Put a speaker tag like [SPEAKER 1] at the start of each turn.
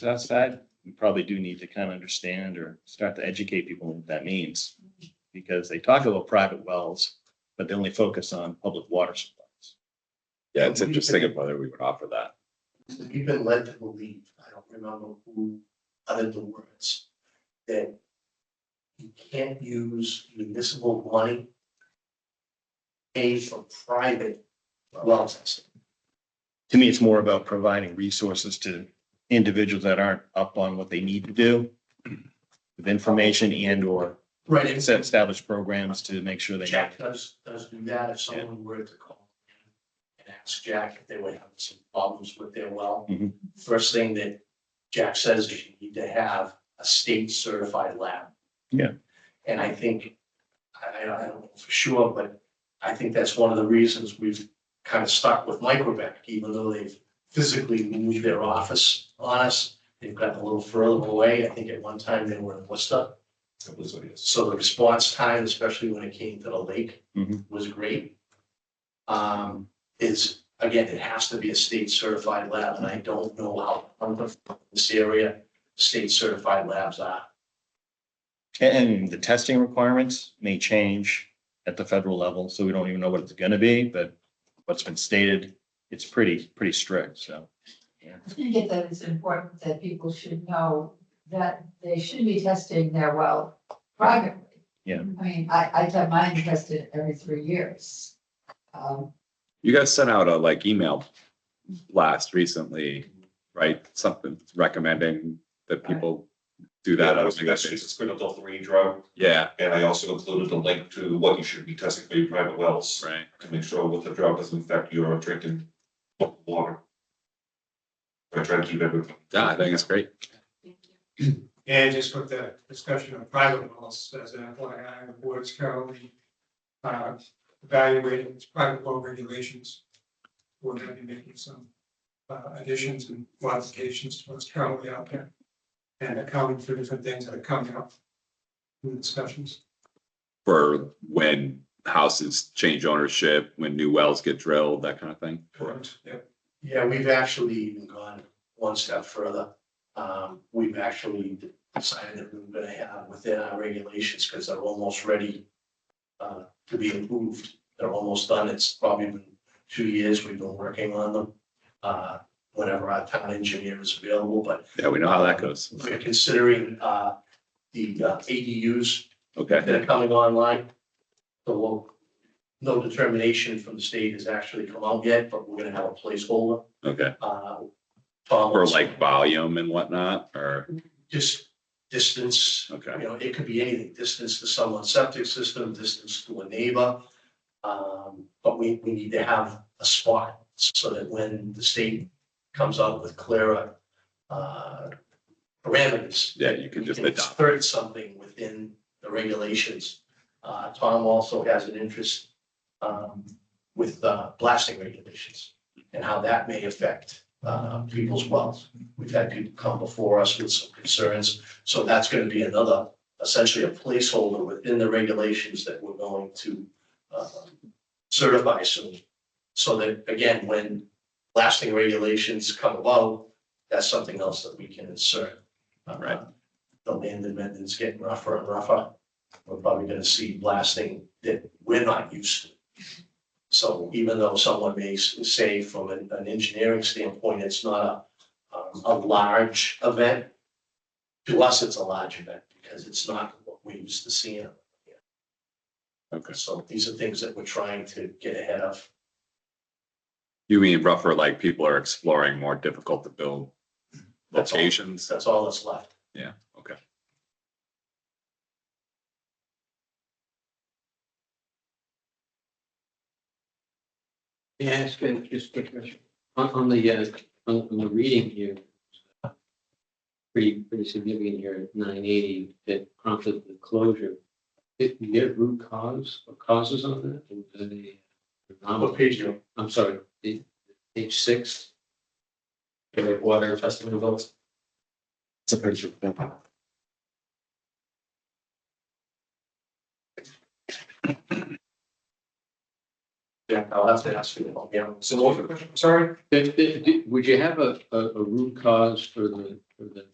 [SPEAKER 1] outside, we probably do need to kind of understand or start to educate people what that means. Because they talk about private wells, but they only focus on public water supplies.
[SPEAKER 2] Yeah, it's interesting of whether we would offer that.
[SPEAKER 3] we've been led to believe, I don't remember who uttered the words, that you can't use municipal money paid for private well testing.
[SPEAKER 1] To me, it's more about providing resources to individuals that aren't up on what they need to do. With information and or
[SPEAKER 3] Right. and
[SPEAKER 1] set established programs to make sure they. know.
[SPEAKER 3] Jack does, does do that if someone were to call in and ask Jack if they were having some problems with their well.
[SPEAKER 1] Mhm.
[SPEAKER 3] First thing that Jack says is you need to have a state certified lab.
[SPEAKER 1] Yeah.
[SPEAKER 3] And I think, I, I don't I don't know for sure, but I think that's one of the reasons we've kind of stuck with Microbeck, even though they've physically moved their office on us. They've gotten a little further away. I think at one time they were in Worcester. So the response time, especially when it came to the lake,
[SPEAKER 1] Mhm.
[SPEAKER 3] was great. Um, is, again, it has to be a state certified lab, and I don't know how, plentiful in this area, state certified labs are.
[SPEAKER 1] And the testing requirements may change at the federal level, so we don't even know what it's gonna be, but what's been stated, it's pretty, pretty strict, so.
[SPEAKER 4] I think that it's important that people should know that they should be testing their well privately.
[SPEAKER 1] Yeah.
[SPEAKER 4] I mean, I, I have mine tested every three years. Um,
[SPEAKER 2] You guys sent out a like email blast recently, right? Something recommending that people do
[SPEAKER 5] Yeah,
[SPEAKER 2] that.
[SPEAKER 5] that
[SPEAKER 2] on a
[SPEAKER 5] was the
[SPEAKER 2] regular
[SPEAKER 5] best,
[SPEAKER 2] basis.
[SPEAKER 5] it's been adult range drug,
[SPEAKER 2] Yeah,
[SPEAKER 5] and I also included a link to what you should be testing for your private wells
[SPEAKER 2] right.
[SPEAKER 5] to make sure what the drought doesn't affect your drinking water. I try to keep everything.
[SPEAKER 2] Yeah, I think it's great.
[SPEAKER 6] And just with the discussion of private wells, as an FYI, the board's currently uh, evaluating its private well regulations. We're gonna be making some uh, additions and modifications to what's currently out there. And accounting for different things that are coming up in the discussions.
[SPEAKER 2] For when houses change ownership, when new wells get drilled, that kind of thing.
[SPEAKER 6] Correct. Yep.
[SPEAKER 3] Yeah, we've actually even gone one step further. Um, we've actually decided that we we're gonna have within our regulations, because they're almost ready uh, to be approved. They're almost done. It's probably been two years we've been working on them. Uh, whenever our town engineer is available, but
[SPEAKER 2] Yeah, we know how that goes.
[SPEAKER 3] we're considering uh, the uh, ADUs that
[SPEAKER 2] Okay,
[SPEAKER 3] are coming online. So we'll, no determination from the state has actually come out yet, but we're gonna have a placeholder
[SPEAKER 2] okay.
[SPEAKER 3] uh, Tom.
[SPEAKER 2] Or like volume and whatnot, or,
[SPEAKER 3] Just distance, you
[SPEAKER 2] okay,
[SPEAKER 3] know, it could be anything, distance to someone's septic system, distance to a neighbor. Um, but we, we need to have a spot so that when the state comes out with clearer, uh, parameters.
[SPEAKER 2] yeah, you can
[SPEAKER 3] we
[SPEAKER 2] just
[SPEAKER 3] can
[SPEAKER 2] adopt.
[SPEAKER 3] Insert something within the regulations. Uh, Tom also has an interest, um, with, uh, blasting regulations and how that may affect, uh, people's wells. We've had people come before us with some concerns, so that's gonna be another, essentially a placeholder within the regulations that we're going to, uh, certify soon. So that, again, when blasting regulations come about, that's something else that we can insert. Uh,
[SPEAKER 2] Right.
[SPEAKER 3] The land amendments getting rougher and rougher. We're probably gonna see blasting that we're not used to. So even though someone may s- say from an, an engineering standpoint, it's not a, um, a large event. To us, it's a large event because it's not what we used to see in.
[SPEAKER 2] Okay.
[SPEAKER 3] So these are things that we're trying to get ahead of.
[SPEAKER 2] You mean rougher, like people are exploring more difficult to build
[SPEAKER 3] That's all.
[SPEAKER 2] locations?
[SPEAKER 3] That's all that's left.
[SPEAKER 2] Yeah, okay.
[SPEAKER 7] May I ask uh, just a quick question? On, on the, uh, on, on the reading here, pretty, pretty significant here, at nine eighty, that prompted the closure. Did you get root cause or causes on that? And uh, do they-
[SPEAKER 3] What page do you-
[SPEAKER 7] I'm sorry, the- page six. The Water testing results.
[SPEAKER 1] It's a picture.
[SPEAKER 3] Yeah, I'll have to ask you about, yeah.
[SPEAKER 5] So what was the question, I'm sorry?
[SPEAKER 7] Did- did- did- would you have a, a, a root cause for the, for for the